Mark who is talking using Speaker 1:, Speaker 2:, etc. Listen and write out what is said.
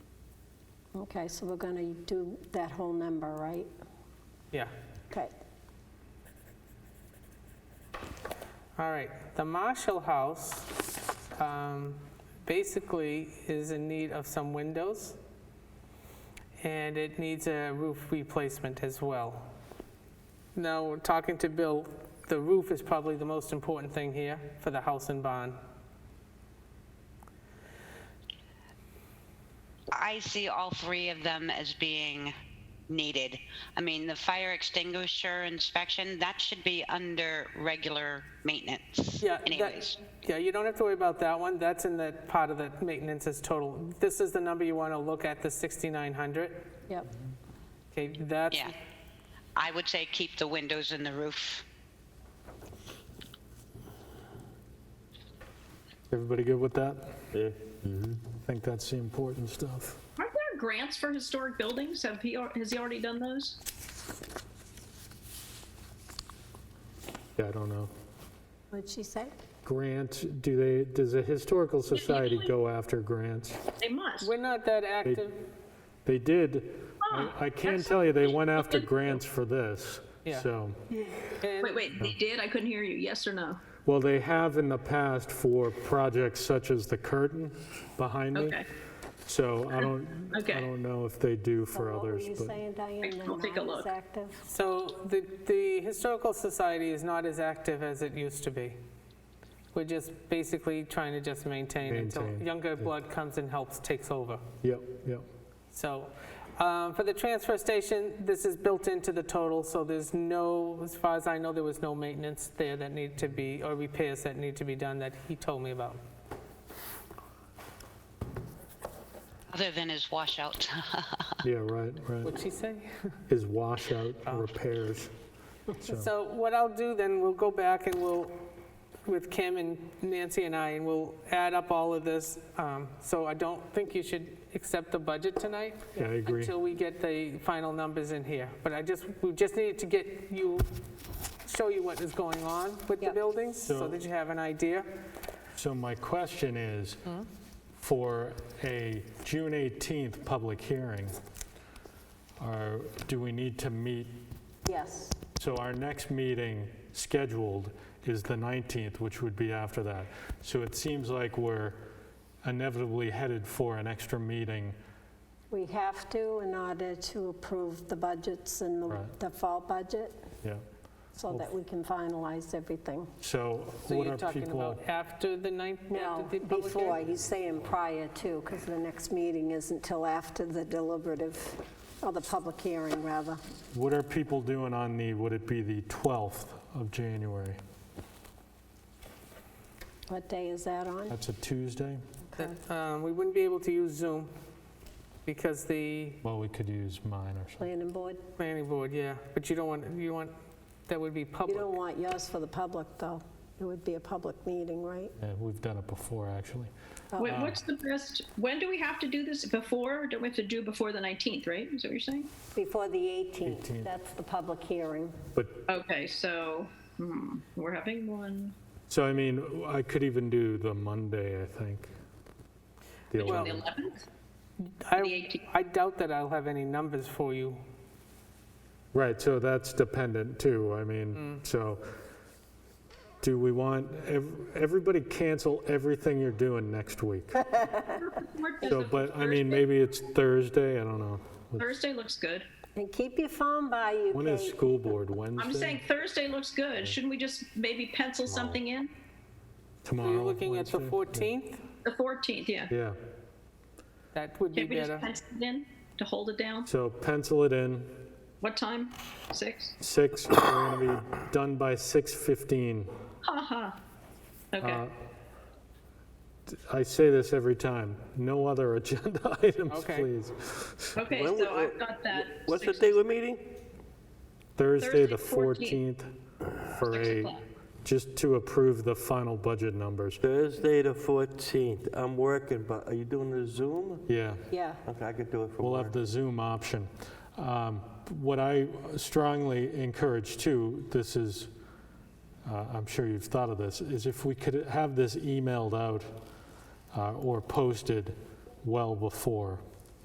Speaker 1: Okay, so we're going to do that whole number, right?
Speaker 2: Yeah.
Speaker 1: Okay.
Speaker 2: All right. The Marshall House um, basically is in need of some windows, and it needs a roof replacement as well. Now, talking to Bill, the roof is probably the most important thing here for the house and barn.
Speaker 3: I see all three of them as being needed. I mean, the fire extinguisher inspection, that should be under regular maintenance
Speaker 2: Yeah, that-
Speaker 3: anyways.
Speaker 2: Yeah, you don't have to worry about that one. That's in the part of the maintenance is total. This is the number you want to look at, the 6,900.
Speaker 1: Yep.
Speaker 2: Okay, that's,
Speaker 3: Yeah. I would say keep the windows and the roof.
Speaker 4: Everybody good with that? Mm-hmm.
Speaker 5: Yeah.
Speaker 4: I think that's the important stuff.
Speaker 6: Aren't there grants for historic buildings? Have he, al- has he already done those?
Speaker 4: Yeah, I don't know.
Speaker 1: What'd she say?
Speaker 4: Grant, do they, does the Historical Society go after grants?
Speaker 6: They must.
Speaker 2: we're not that active.
Speaker 4: They did, I-
Speaker 6: Huh,
Speaker 4: I can
Speaker 6: that's
Speaker 4: tell you, they went
Speaker 6: something.
Speaker 4: after grants for this.
Speaker 2: Yeah.
Speaker 4: So,
Speaker 2: And-
Speaker 6: Wait, wait,
Speaker 4: Hmm.
Speaker 6: they did? I couldn't hear you. Yes or no?
Speaker 4: well, they have in the past for projects such as the curtain behind me.
Speaker 6: Okay.
Speaker 4: So I don't, I
Speaker 6: Okay.
Speaker 4: don't know if they do
Speaker 1: So
Speaker 4: for others,
Speaker 1: What were you
Speaker 4: but
Speaker 1: saying, Diane?
Speaker 6: I'll
Speaker 1: They're
Speaker 6: take a
Speaker 1: not as
Speaker 6: look.
Speaker 1: active?
Speaker 2: So the, the Historical Society is not as active as it used to be. We're just basically trying to just maintain until
Speaker 4: Maintain,
Speaker 2: younger blood comes and helps, takes over.
Speaker 4: yep, yep.
Speaker 2: So um, for the transfer station, this is built into the total, so there's no, as far as I know, there was no maintenance there that needed to be, or repairs that need to be done that he told me about.
Speaker 3: Other than his washout,
Speaker 4: Yeah, right, right.
Speaker 2: What'd she say?
Speaker 4: Is washout
Speaker 6: Oh.
Speaker 4: repairs.
Speaker 2: So what I'll do then, we'll go back and we'll, with Kim and Nancy and I, and we'll add up all of this. Um, So I don't think you should accept the budget tonight.
Speaker 4: Yeah, I agree.
Speaker 2: Until we get the final numbers in here. But I just, we just needed to get you, show you what is going on with the
Speaker 1: Yep.
Speaker 2: buildings, so
Speaker 4: So-
Speaker 2: that you have an idea.
Speaker 4: So my question is,
Speaker 2: Hmm?
Speaker 4: for a June 18th public hearing, are, do we need to meet,
Speaker 1: Yes.
Speaker 4: so our next meeting scheduled is the 19th, which would be after that. So it seems like we're inevitably headed for an extra meeting.
Speaker 1: We have to in order to approve the budgets and the-
Speaker 4: Right.
Speaker 1: the fall budget
Speaker 4: Yeah.
Speaker 1: so that we can finalize everything.
Speaker 4: So
Speaker 2: So
Speaker 4: what
Speaker 2: you're
Speaker 4: are
Speaker 2: talking
Speaker 4: people,
Speaker 2: about after the ninth,
Speaker 1: No,
Speaker 2: after the public
Speaker 1: before,
Speaker 2: hearing?
Speaker 1: he's saying prior to, because the next meeting isn't till after the deliberative, or the public hearing, rather.
Speaker 4: what are people doing on the, would it be the 12th of January?
Speaker 2: Hmm?
Speaker 1: What day is that on?
Speaker 4: That's a Tuesday?
Speaker 1: Okay.
Speaker 2: That, um, We wouldn't be able to use Zoom because the
Speaker 4: Well, we could use mine or something.
Speaker 1: Planning board?
Speaker 2: Planning board, yeah, but you don't want, you want, that would be
Speaker 1: You
Speaker 2: public.
Speaker 1: don't want yours for the public, though. It would be a public meeting, right?
Speaker 4: Yeah, we've done it before, actually.
Speaker 6: Wait,
Speaker 4: Uh.
Speaker 6: what's the best, when do we have to do this? Before, don't we have to do before the 19th, right? Is that what you're saying?
Speaker 1: Before the 18th,
Speaker 4: 18th.
Speaker 1: that's the public hearing.
Speaker 4: But,
Speaker 6: Okay, so, hmm, we're having one.
Speaker 4: so I mean, I could even do the Monday, I think. The
Speaker 2: Well-
Speaker 6: The
Speaker 4: 11th.
Speaker 6: 11th? the
Speaker 2: I
Speaker 6: 18th.
Speaker 2: I doubt that I'll have any numbers for you.
Speaker 4: Right, so that's dependent too, I mean, so do we want, ev- everybody cancel everything you're doing next week?
Speaker 6: What does
Speaker 4: So,
Speaker 6: the
Speaker 4: but I mean,
Speaker 6: Thursday-
Speaker 4: maybe it's Thursday, I don't know.
Speaker 6: Thursday looks good.
Speaker 1: And keep your phone by you,
Speaker 4: When is
Speaker 1: Kate.
Speaker 4: school board, Wednesday?
Speaker 6: I'm saying Thursday looks good. Shouldn't we just maybe pencil something in?
Speaker 2: So
Speaker 4: Tomorrow?
Speaker 2: you're looking at the
Speaker 4: Wednesday?
Speaker 2: 14th?
Speaker 6: The 14th, yeah.
Speaker 4: Yeah,
Speaker 2: That would be
Speaker 6: Can we just
Speaker 2: better.
Speaker 6: pencil it in to hold it down?
Speaker 4: so pencil it in,
Speaker 6: What time? Six?
Speaker 4: six, we're gonna be done by 6:15.
Speaker 6: Haha. Okay.
Speaker 4: Uh, I say this every time, no other agenda items,
Speaker 2: Okay.
Speaker 4: please.
Speaker 6: Okay,
Speaker 5: When
Speaker 6: so
Speaker 5: we-
Speaker 6: I've got that.
Speaker 5: What's the
Speaker 6: six-
Speaker 5: day we're meeting?
Speaker 4: Thursday, the
Speaker 6: Thursday,
Speaker 4: 14th, for
Speaker 6: Six
Speaker 4: a,
Speaker 6: o'clock.
Speaker 4: just to approve the final budget numbers.
Speaker 5: Thursday the 14th. I'm working, but are you doing the Zoom?
Speaker 4: Yeah,
Speaker 1: Yeah,
Speaker 5: Okay, I could do it from
Speaker 4: we'll
Speaker 5: work.
Speaker 4: have the Zoom option. Um, What I strongly encourage too, this is, uh, I'm sure you've thought of this, is if we could have this emailed out uh, or posted well before,